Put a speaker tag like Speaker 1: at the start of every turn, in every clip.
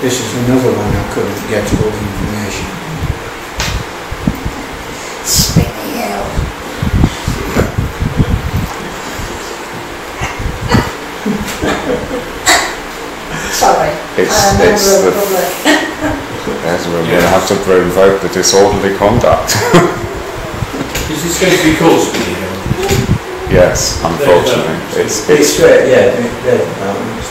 Speaker 1: This is another one I couldn't get all the information.
Speaker 2: Spinny out. Sorry.
Speaker 3: It's-
Speaker 2: I'm a member
Speaker 3: it's
Speaker 2: of the
Speaker 3: the-
Speaker 2: public.
Speaker 3: As we're going to have to provoke the disorderly conduct.
Speaker 4: Is this going to be called Spinny Hill?
Speaker 3: yes, unfortunately. It's, it's,
Speaker 1: great, um, yeah, the- the departments.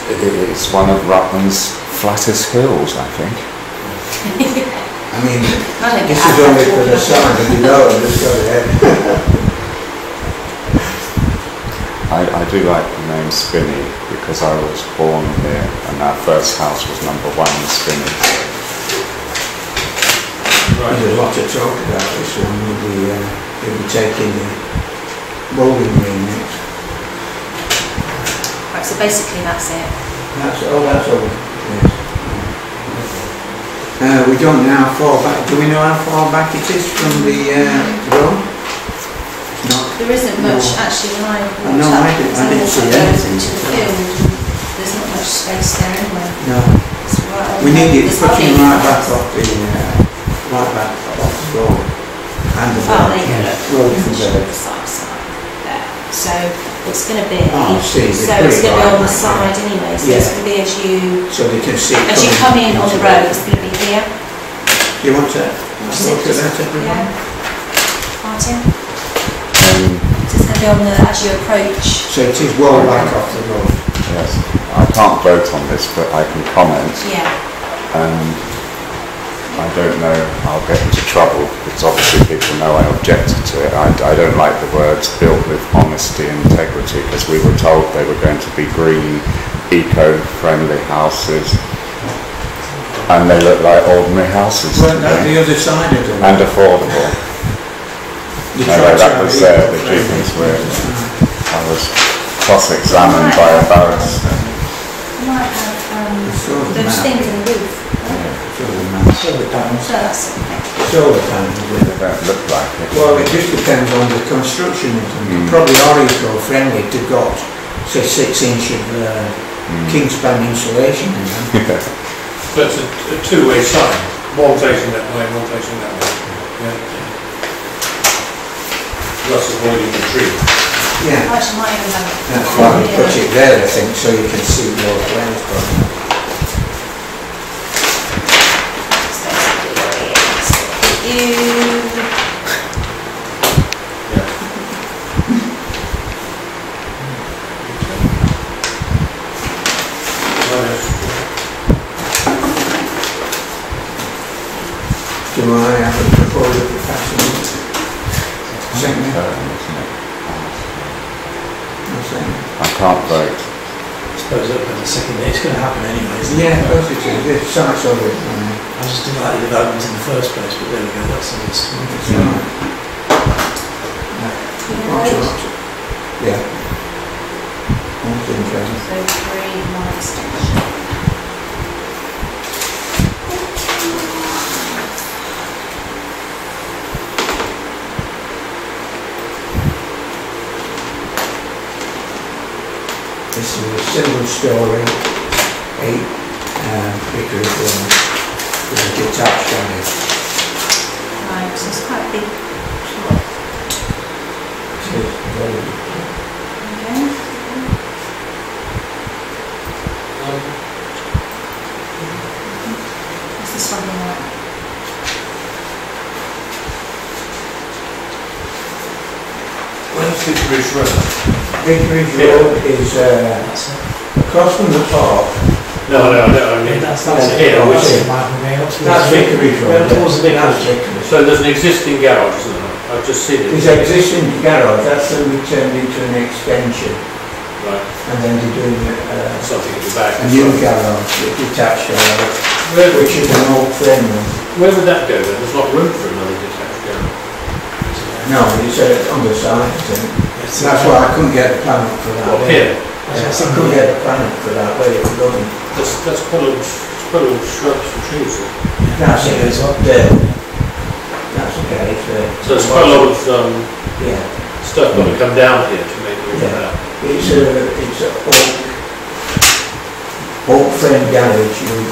Speaker 3: it's one of Rutland's flattest hills, I think.
Speaker 1: I mean,
Speaker 5: I think
Speaker 1: this
Speaker 5: I-
Speaker 1: is only for the summer, but you know, just go ahead.
Speaker 3: I, I do like the name Spinney because I was born here and our first house was number one in Spinney.
Speaker 1: There's
Speaker 4: Right.
Speaker 1: a lot to talk about this one, we'll be, uh, we'll be taking the bowling green next.
Speaker 5: Right, so basically that's it.
Speaker 1: That's, oh, that's all, yes. Uh, we don't know how far back, do we know how far back it is from the, uh, road? Not
Speaker 5: There isn't
Speaker 1: No.
Speaker 5: much actually when
Speaker 1: I
Speaker 5: I walked
Speaker 1: know,
Speaker 5: up.
Speaker 1: I didn't- I
Speaker 5: so
Speaker 1: didn't see
Speaker 5: walked up
Speaker 1: anything.
Speaker 5: To the field, and there's not much space there anyway.
Speaker 1: No,
Speaker 5: It's right over
Speaker 1: we
Speaker 5: there.
Speaker 1: need it
Speaker 5: There's
Speaker 1: fucking
Speaker 5: nothing.
Speaker 1: right back off the, uh, right back off the road. And the
Speaker 5: Oh, there you go.
Speaker 1: road
Speaker 5: Look,
Speaker 1: from
Speaker 5: it's
Speaker 1: there.
Speaker 5: the side, side there. So it's going to be,
Speaker 1: Oh, I see, it's
Speaker 5: so
Speaker 1: pretty
Speaker 5: it's going to be
Speaker 1: wide,
Speaker 5: on the
Speaker 1: right?
Speaker 5: side anyway, so it's
Speaker 1: Yeah.
Speaker 5: going to be as you,
Speaker 1: So they can see.
Speaker 5: as you come in on the road, it's going to be here.
Speaker 1: Do you want to, look at that, everyone?
Speaker 5: Yeah. Martin,
Speaker 3: Um,
Speaker 5: so it's going to be on the, as you approach.
Speaker 1: So it is well back off the road.
Speaker 3: yes, I can't vote on this, but I can comment.
Speaker 5: Yeah,
Speaker 3: Um, I don't know, I'll get into trouble because obviously people know I objected to it. I, I don't like the words built with honesty and integrity because we were told they were going to be green, eco-friendly houses and they look like ordinary houses
Speaker 1: Weren't that
Speaker 3: today
Speaker 1: the other side of the road?
Speaker 3: and affordable.
Speaker 1: You
Speaker 3: No,
Speaker 1: tried
Speaker 3: that
Speaker 1: to
Speaker 3: was,
Speaker 1: have it
Speaker 3: uh, the
Speaker 1: right.
Speaker 3: Jeepers were- I was cross-examined by a barrister.
Speaker 5: you might have, um,
Speaker 1: It's all the
Speaker 5: those
Speaker 1: map.
Speaker 5: things in the roof.
Speaker 1: It's all the map. Solar panels.
Speaker 5: So that's okay.
Speaker 1: Solar panels,
Speaker 3: They don't look like it.
Speaker 1: Well, it just depends on the construction of them. They
Speaker 3: Mm.
Speaker 1: Probably are eco-friendly to got, say, six inch of, uh,
Speaker 3: Mm.
Speaker 1: kingspan insulation in them.
Speaker 4: So it's a, a two-way sign, one facing that way, one facing that way. Yeah. Thus avoiding the tree.
Speaker 1: Yeah,
Speaker 5: Actually, might even have.
Speaker 1: that's why we put it there, I think, so you can see more plans from it.
Speaker 5: That's basically what it is. You,
Speaker 1: Do I have a proposal for passing? Second,
Speaker 3: Um, isn't it?
Speaker 1: I'll second.
Speaker 3: I can't vote.
Speaker 6: suppose up in the second day, it's going to happen anyway, isn't it?
Speaker 1: Yeah, of course it is, it's sites of it, uh,
Speaker 6: I just didn't like the development in the first place, but there we go, that's a nice one.
Speaker 1: it's uh, not. Watch
Speaker 5: you
Speaker 1: it,
Speaker 5: know,
Speaker 1: watch it. Yeah. One thing, Kevin.
Speaker 5: so three, one extension.
Speaker 1: This is a single story, eight, um, acre room with a detached on it.
Speaker 5: Right, so it's quite a big plot.
Speaker 1: It's very,
Speaker 5: Okay. Is Mm-hmm. this one the right?
Speaker 4: Where's the bridge road?
Speaker 1: Vicarage
Speaker 4: Yeah.
Speaker 1: Road is, uh,
Speaker 6: That's it.
Speaker 1: across from the park.
Speaker 4: No, no, no, I
Speaker 6: I mean,
Speaker 4: mean,
Speaker 6: that's, that's it.
Speaker 4: Yeah,
Speaker 6: That's
Speaker 1: yeah.
Speaker 6: it, Michael, going up to the-
Speaker 1: That's Vicarage Road.
Speaker 6: Going towards the
Speaker 1: That's
Speaker 6: vicarage.
Speaker 1: Vicarage.
Speaker 4: so there's an existing garage, isn't there? I've just seen it.
Speaker 1: There's existing garage, that's then we turned into an extension
Speaker 4: Right,
Speaker 1: and then they're doing a,
Speaker 4: something at the back.
Speaker 1: a new garage, a detached garage,
Speaker 4: Where would,
Speaker 1: which is an old frame room.
Speaker 4: where would that go then? There's not room for another detached garage.
Speaker 1: No, it's uh, on the side, I think.
Speaker 6: Yes,
Speaker 1: That's why I couldn't get a plan up for that.
Speaker 4: Well, here,
Speaker 1: Yeah,
Speaker 6: That's
Speaker 1: I
Speaker 6: it.
Speaker 1: couldn't get a plan up for that, where it was going.
Speaker 4: that's, that's quite a, it's quite a lot of shrubs and trees. isn't
Speaker 1: That's it, it's up there. That's okay, it's
Speaker 4: it?
Speaker 1: there.
Speaker 4: So there's quite
Speaker 1: uh,
Speaker 4: a lot of, um,
Speaker 1: Yeah,
Speaker 4: stuff got to come down here to make room for
Speaker 1: Yeah.
Speaker 4: that.
Speaker 1: it's a, it's a oak, oak frame garage, you